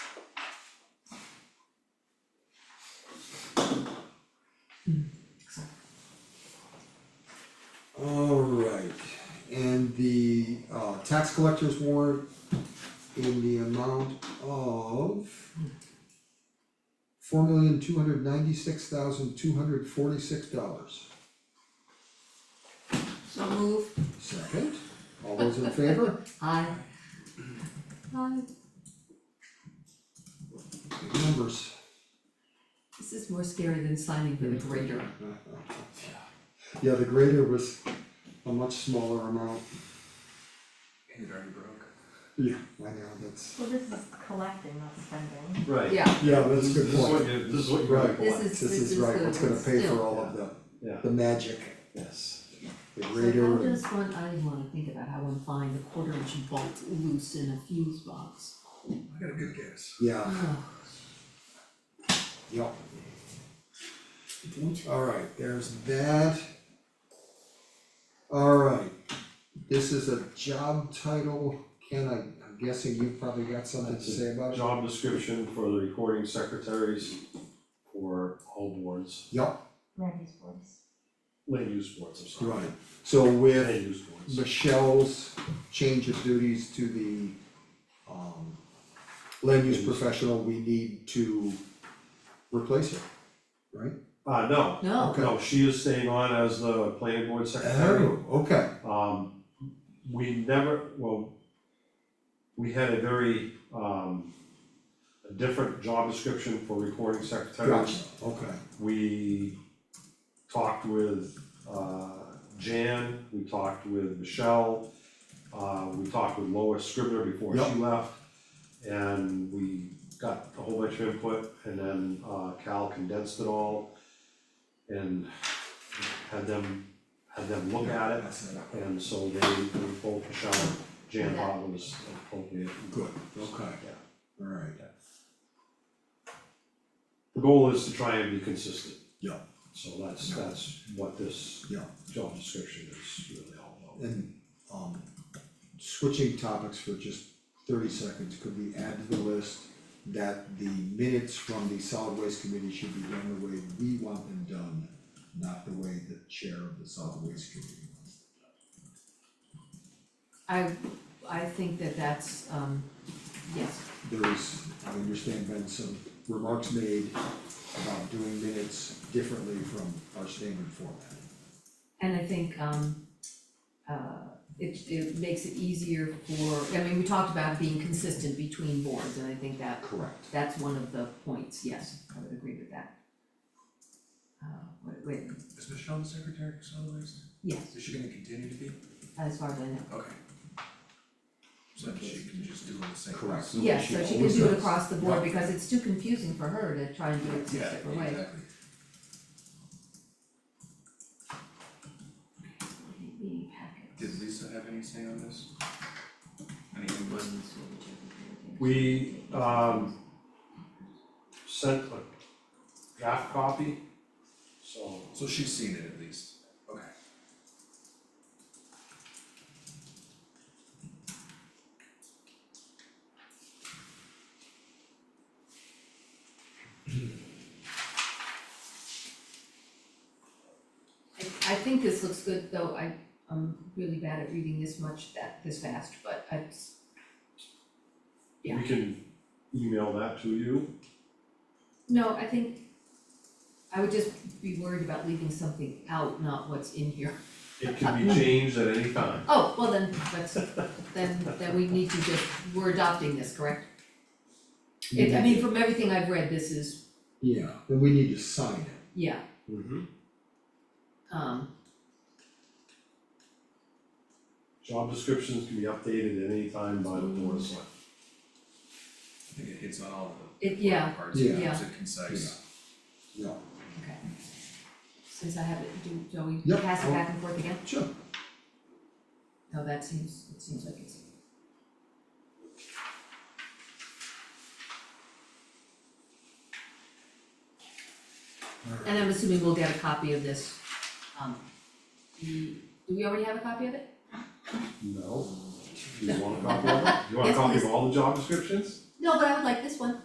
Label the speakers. Speaker 1: uh, tax collector's warrant in the amount of four million two hundred ninety-six thousand two hundred forty-six dollars.
Speaker 2: So move.
Speaker 1: Second, all those in favor?
Speaker 2: Aye. Aye.
Speaker 1: Big numbers.
Speaker 2: This is more scary than signing for the grader.
Speaker 1: Yeah, the grader was a much smaller amount.
Speaker 3: It already broke.
Speaker 1: Yeah. I know, that's,
Speaker 4: Well, this is collecting, not spending.
Speaker 3: Right.
Speaker 2: Yeah,
Speaker 1: yeah, that's a good
Speaker 3: This is what
Speaker 1: point.
Speaker 3: you, this is what you
Speaker 1: Right.
Speaker 3: really
Speaker 2: this
Speaker 3: want.
Speaker 2: is,
Speaker 1: This is
Speaker 2: the,
Speaker 1: right, what's gonna pay for all of the,
Speaker 3: Yeah,
Speaker 1: the magic,
Speaker 3: yes.
Speaker 1: the
Speaker 2: So
Speaker 1: grader
Speaker 2: how
Speaker 1: and,
Speaker 2: does one, I wanna think about how one find a quarter inch bolt loose in a fuse box.
Speaker 3: I got a good guess.
Speaker 1: yeah,
Speaker 2: Ugh,
Speaker 1: yeah. Alright, there's that. Alright, this is a job title, Ken, I, I'm guessing you probably got something to say about it?
Speaker 3: Job description for the recording secretaries for all boards,
Speaker 1: Yup,
Speaker 4: Randy's voice.
Speaker 3: land use boards, I'm sorry.
Speaker 1: right, so with
Speaker 3: Land use boards.
Speaker 1: Michelle's change of duties to the um land use professional, we need to replace her, right?
Speaker 3: Uh, no,
Speaker 2: No,
Speaker 1: Okay.
Speaker 3: no, she is staying on as the planning board secretary.
Speaker 1: okay,
Speaker 3: Um, we never, well, we had a very, um, a different job description for recording secretaries.
Speaker 1: gotcha, okay,
Speaker 3: We talked with uh Jan, we talked with Michelle, uh we talked with Lois Scribner before
Speaker 1: Yep.
Speaker 3: she left. And we got a whole bunch of input and then uh Cal condensed it all and had them, had them look at it.
Speaker 1: that's it,
Speaker 3: And so they, they both, Michelle and Jan
Speaker 2: Yeah.
Speaker 3: thought it was appropriate.
Speaker 1: good, okay,
Speaker 3: Yeah.
Speaker 1: alright,
Speaker 3: The goal is to try and be consistent.
Speaker 1: Yeah.
Speaker 3: So that's, that's what this
Speaker 1: Yeah.
Speaker 3: job description is really all about.
Speaker 1: and um switching topics for just thirty seconds, could we add to the list that the minutes from the solid waste committee should be done the way we want them done, not the way the chair of the solid waste committee wants them done?
Speaker 2: I, I think that that's, um, yes,
Speaker 1: there is, I understand, been some remarks made about doing minutes differently from our standard format.
Speaker 2: And I think um uh it it makes it easier for, I mean, we talked about being consistent between boards and I think that
Speaker 1: Correct.
Speaker 2: that's one of the points, yes, I would agree with that. Uh wait, wait,
Speaker 5: Is Michelle the secretary for solid waste?
Speaker 2: yes,
Speaker 5: Is she gonna continue to be?
Speaker 2: as far as I know,
Speaker 5: Okay. So that she can just do all the same.
Speaker 1: Correct. So
Speaker 2: yes,
Speaker 1: she
Speaker 2: so she can
Speaker 1: always
Speaker 2: do it
Speaker 1: does.
Speaker 2: across the board
Speaker 1: Yeah.
Speaker 2: because it's too confusing for her to try and do it six
Speaker 5: Yeah,
Speaker 2: different ways.
Speaker 5: exactly.
Speaker 2: Maybe packet.
Speaker 5: Did Lisa have any say on this? Any input?
Speaker 3: We, um, sent a draft copy, so
Speaker 5: So she's seen it at least. Okay.
Speaker 2: I I think this looks good, though I I'm really bad at reading this much that this fast, but I Yeah.
Speaker 3: we can email that to you.
Speaker 2: No, I think I would just be worried about leaving something out, not what's in here.
Speaker 3: It can
Speaker 2: Uh,
Speaker 3: be changed at any time.
Speaker 2: Oh, well then, that's, then, then we need to just, we're adopting this, correct? It, I mean, from everything I've read, this is,
Speaker 1: Yeah, then we need to sign it.
Speaker 2: yeah,
Speaker 3: Mm-hmm.
Speaker 2: um,
Speaker 3: Job descriptions can be updated at any time by the board of select.
Speaker 5: I think it hits on all of
Speaker 2: it,
Speaker 5: the
Speaker 2: yeah,
Speaker 5: parts,
Speaker 1: Yeah.
Speaker 5: it keeps it concise.
Speaker 1: Yeah,
Speaker 2: okay. Since I have it, do, shall we
Speaker 1: Yep.
Speaker 2: pass it back and forth again?
Speaker 1: sure.
Speaker 2: No, that seems, it seems like it's, and I'm assuming we'll get a copy of this, um, the, do we already have a copy of it?
Speaker 3: No? Do you want a copy of it? Do you want a
Speaker 2: Yes,
Speaker 3: copy
Speaker 2: please.
Speaker 3: of all the job descriptions?
Speaker 2: No, but I would like this one.